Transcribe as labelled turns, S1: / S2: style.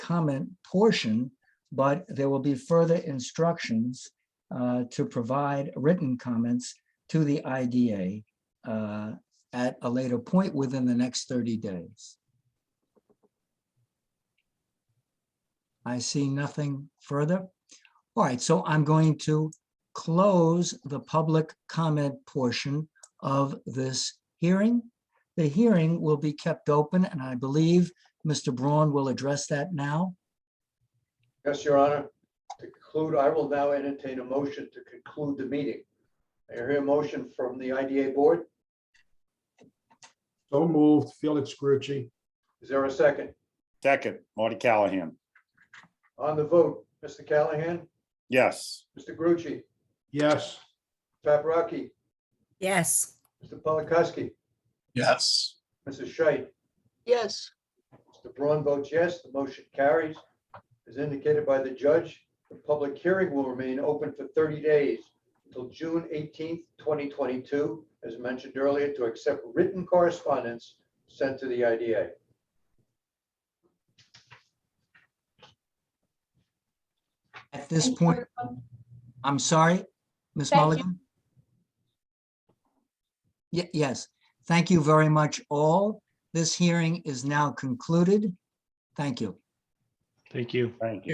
S1: comment portion, but there will be further instructions uh, to provide written comments to the IDA uh, at a later point within the next 30 days. I see nothing further. All right, so I'm going to close the public comment portion of this hearing. The hearing will be kept open, and I believe Mr. Braun will address that now.
S2: Yes, Your Honor. To conclude, I will now entertain a motion to conclude the meeting. I hear a motion from the IDA Board.
S3: So moved, Felix Grucci.
S2: Is there a second?
S4: Second, Marty Callahan.
S2: On the vote, Mr. Callahan,
S4: Yes.
S2: Mr. Grucci,
S3: Yes.
S2: Paprocki,
S5: Yes.
S2: Mr. Polakowski,
S6: Yes.
S2: Mrs. Scheit.
S7: yes.
S2: Mr. Braun votes yes, the motion carries. As indicated by the judge, the public hearing will remain open for 30 days until June 18th, 2022, as mentioned earlier, to accept written correspondence sent to the IDA.
S1: At this
S8: Thank you,
S1: point,
S8: everyone.
S1: I'm sorry, Ms.
S8: Thank you.
S1: Mulligan? Ye- yes, thank you very much all. This hearing is now concluded. Thank you.
S9: Thank you.
S4: Thank you.